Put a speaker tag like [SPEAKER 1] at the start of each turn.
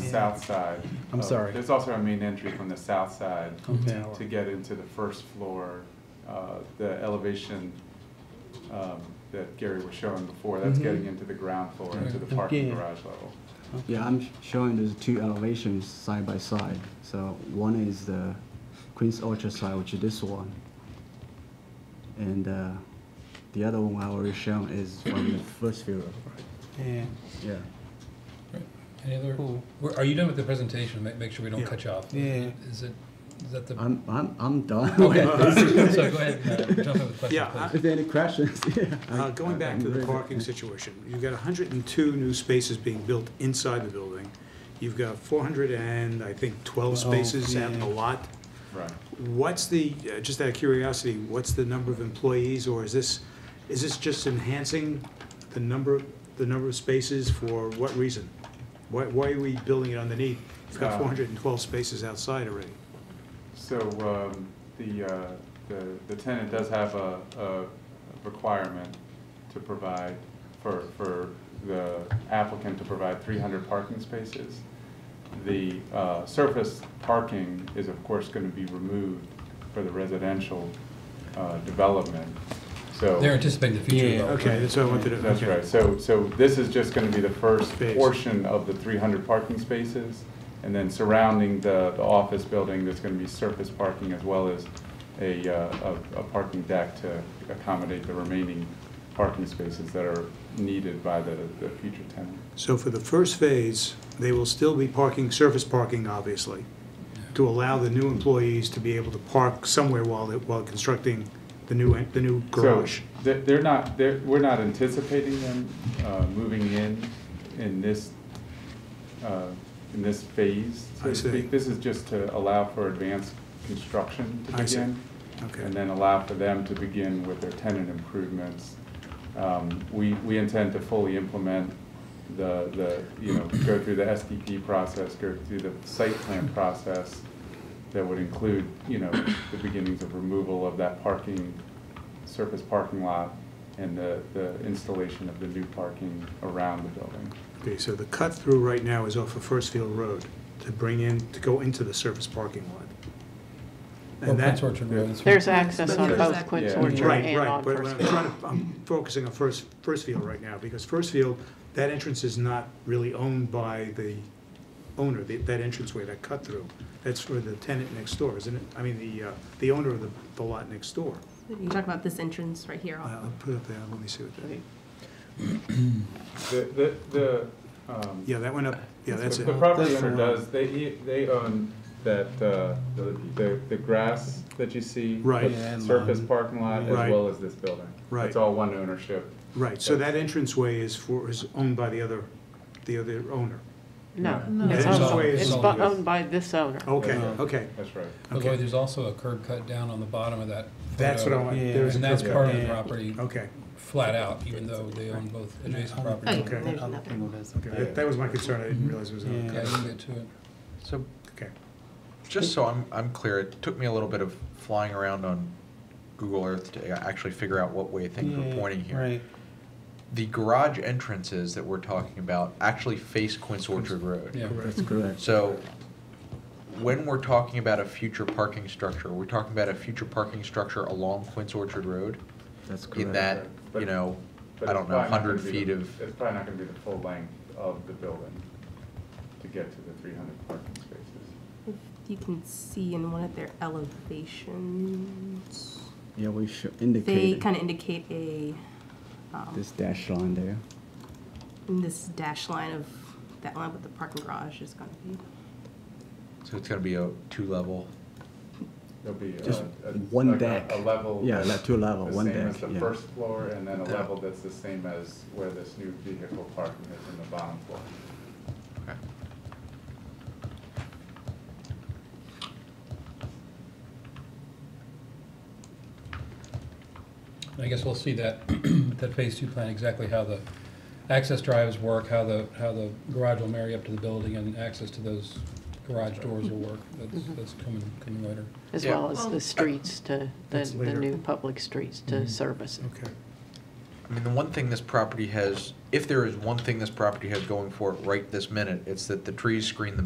[SPEAKER 1] south side.
[SPEAKER 2] I'm
[SPEAKER 1] of-
[SPEAKER 2] sorry. Oh,
[SPEAKER 1] There's also a main entry from the south side
[SPEAKER 2] Okay.
[SPEAKER 1] to get into the first floor. Uh, The elevation um, that Gary was showing before, that's
[SPEAKER 2] Mhm.
[SPEAKER 1] getting into the ground floor, into the parking
[SPEAKER 2] Okay.
[SPEAKER 1] garage level.
[SPEAKER 3] Yeah, I'm sh- showing those two elevations side by side. So one is the Queen's Orchard side, which is this one. And uh, the other one I already shown is from the first view.
[SPEAKER 2] Yeah.
[SPEAKER 3] Yeah.
[SPEAKER 4] Any other,
[SPEAKER 2] Cool.
[SPEAKER 4] We're- are you done with the presentation? Make, make sure we don't
[SPEAKER 5] Yeah.
[SPEAKER 4] cut you off.
[SPEAKER 2] Yeah.
[SPEAKER 4] Is it, is that the?
[SPEAKER 3] I'm, I'm, I'm done
[SPEAKER 4] Okay,
[SPEAKER 3] with this.
[SPEAKER 4] So go ahead, uh, jump in with questions,
[SPEAKER 5] Yeah,
[SPEAKER 4] please.
[SPEAKER 3] If there are any questions, yeah. I-
[SPEAKER 5] Uh, Going back to the
[SPEAKER 3] I'm ready.
[SPEAKER 5] parking situation, you've got 102 new spaces being built inside the building. You've got 400 and, I think, 12
[SPEAKER 2] Twelve,
[SPEAKER 5] spaces out in the
[SPEAKER 2] yeah.
[SPEAKER 5] lot.
[SPEAKER 1] Right.
[SPEAKER 5] What's the, uh, just out of curiosity, what's the number of employees, or is this, is this just enhancing the number, the number of spaces for what reason? Why, why are we building it underneath? You've got
[SPEAKER 1] Uh,
[SPEAKER 5] 412 spaces outside already.
[SPEAKER 1] So um, the, uh, the the tenant does have a, a requirement to provide for, for the applicant to provide three hundred parking spaces. The uh, surface parking is of course going to be removed for the residential uh, development, so.
[SPEAKER 4] They're anticipating the future.
[SPEAKER 2] Yeah,
[SPEAKER 4] development.
[SPEAKER 5] Okay, that's what I wanted to.
[SPEAKER 1] That's
[SPEAKER 5] okay.
[SPEAKER 1] right, so, so this is just gonna be the first
[SPEAKER 5] Space.
[SPEAKER 1] portion of the three hundred parking spaces, and then surrounding the, the office building, there's gonna be surface parking as well as a, uh, a, a parking deck to accommodate the remaining parking spaces that are needed by the, the future tenant.
[SPEAKER 5] So for the first phase, they will still be parking, surface parking, obviously, to allow the new employees to be able to park somewhere while, they- while constructing the new, en- the new garage.
[SPEAKER 1] So they're, they're not, they're, we're not anticipating them uh, moving in, in this, uh, in this phase. so to
[SPEAKER 5] I see.
[SPEAKER 1] speak. This is just to allow for advanced construction to
[SPEAKER 5] I see.
[SPEAKER 1] begin.
[SPEAKER 5] Okay.
[SPEAKER 1] And then allow for them to begin with their tenant improvements. Um, We, we intend to fully implement the, the, you know, go through the SDP process, go through the site plan process that would include, you know, the beginnings of removal of that parking, surface parking lot and the, the installation of the new parking around the building.
[SPEAKER 5] Okay, so the cut-through right now is off of First Field Road to bring in, to go into the surface parking lot.
[SPEAKER 4] Well,
[SPEAKER 5] And that,
[SPEAKER 4] Prince Orchard Road is-
[SPEAKER 6] There's access on
[SPEAKER 1] There's
[SPEAKER 6] both
[SPEAKER 1] ac-
[SPEAKER 6] Quinn's
[SPEAKER 1] yeah.
[SPEAKER 6] Orchard
[SPEAKER 5] right,
[SPEAKER 6] and
[SPEAKER 5] right,
[SPEAKER 6] on
[SPEAKER 5] but
[SPEAKER 6] First
[SPEAKER 5] I'm
[SPEAKER 6] Street.
[SPEAKER 5] trying to, I'm focusing on First, First Field right now, because First Field, that entrance is not really owned by the owner, the- that entranceway, that cut-through. That's for the tenant next door, isn't it? I mean, the, uh, the owner of the, the lot next door.
[SPEAKER 7] You talk about this entrance right here.
[SPEAKER 5] Uh, I'll put it up there, let me see what that,
[SPEAKER 1] The, the, the, um,
[SPEAKER 5] yeah, that went up, yeah, that's
[SPEAKER 1] The-
[SPEAKER 5] it.
[SPEAKER 1] The property
[SPEAKER 2] That's
[SPEAKER 1] owner
[SPEAKER 2] the
[SPEAKER 1] does, they, he- they own that, uh, the- the, the grass that you see.
[SPEAKER 5] Right.
[SPEAKER 1] the
[SPEAKER 2] Yeah, and
[SPEAKER 1] Surface
[SPEAKER 2] lawn.
[SPEAKER 1] parking lot as
[SPEAKER 5] Right.
[SPEAKER 1] well as this building.
[SPEAKER 5] Right.
[SPEAKER 1] It's all one ownership.
[SPEAKER 5] Right, so that entranceway is for, is owned by the other, the other owner.
[SPEAKER 6] No,
[SPEAKER 7] No.
[SPEAKER 6] it's
[SPEAKER 5] It's
[SPEAKER 6] owned,
[SPEAKER 5] always-
[SPEAKER 6] it's bu- owned by this owner.
[SPEAKER 5] Okay,
[SPEAKER 1] Yeah.
[SPEAKER 5] okay,
[SPEAKER 1] That's right.
[SPEAKER 4] By the way,
[SPEAKER 5] okay.
[SPEAKER 4] there's also a curb cut down on the bottom of that.
[SPEAKER 5] That's what I
[SPEAKER 4] photo,
[SPEAKER 5] want,
[SPEAKER 2] Yeah.
[SPEAKER 5] there is a
[SPEAKER 4] And that's
[SPEAKER 5] curb
[SPEAKER 4] part
[SPEAKER 5] cut.
[SPEAKER 4] of the
[SPEAKER 2] Yeah.
[SPEAKER 4] property,
[SPEAKER 5] Okay,
[SPEAKER 4] flat out, even though they own both adjacent properties.
[SPEAKER 5] Okay.
[SPEAKER 7] Oh, there's
[SPEAKER 2] I'll
[SPEAKER 7] nothing.
[SPEAKER 2] angle this.
[SPEAKER 5] okay, that- that was my concern, I didn't realize it was on.
[SPEAKER 2] Yeah.
[SPEAKER 4] Yeah, you can get to it.
[SPEAKER 8] So,
[SPEAKER 5] Okay,
[SPEAKER 8] just so I'm, I'm clear, it took me a little bit of flying around on Google Earth to actually figure out what way things were
[SPEAKER 2] Yeah,
[SPEAKER 8] pointing here.
[SPEAKER 2] Right.
[SPEAKER 8] The garage entrances that we're talking about actually face Quince Orchard Road.
[SPEAKER 4] Yeah.
[SPEAKER 3] That's correct.
[SPEAKER 8] So, when we're talking about a future parking structure, we're talking about a future parking structure along Quince Orchard Road?
[SPEAKER 3] That's correct.
[SPEAKER 8] In that, you know, I don't know, 100 feet of,
[SPEAKER 1] It's probably not gonna be the full length of the building to get to the three hundred parking spaces.
[SPEAKER 7] If You can see in one of their elevations,
[SPEAKER 3] Yeah, we should
[SPEAKER 7] they
[SPEAKER 3] indicate
[SPEAKER 7] kind of indicate a, um,
[SPEAKER 3] this dash line there.
[SPEAKER 7] in this dash line of that line with the parking garage is gonna be.
[SPEAKER 8] so it's going to be a two-level?
[SPEAKER 1] There'll be a.
[SPEAKER 3] Just
[SPEAKER 1] a-
[SPEAKER 3] one
[SPEAKER 1] like a-
[SPEAKER 3] deck.
[SPEAKER 1] A level.
[SPEAKER 3] Yeah,
[SPEAKER 1] that's
[SPEAKER 3] like two level, one
[SPEAKER 1] The same
[SPEAKER 3] deck,
[SPEAKER 1] as the
[SPEAKER 3] yeah.
[SPEAKER 1] first floor, and then a
[SPEAKER 8] Yeah.
[SPEAKER 1] level that's the same as where this new vehicle parking is in the bottom floor.
[SPEAKER 8] Okay.
[SPEAKER 4] And I guess we'll see that, that phase two plan, exactly how the access drives work, how the, how the garage will marry up to the building and access to those garage doors will work. That's, that's coming, coming later.
[SPEAKER 6] As
[SPEAKER 8] Yeah.
[SPEAKER 6] well as the streets to, the,
[SPEAKER 5] That's
[SPEAKER 6] the
[SPEAKER 5] later.
[SPEAKER 6] new public streets to service it.
[SPEAKER 5] okay.
[SPEAKER 8] I mean, the one thing this property has, if there is one thing this property has going for it right this minute, it's that the trees screen the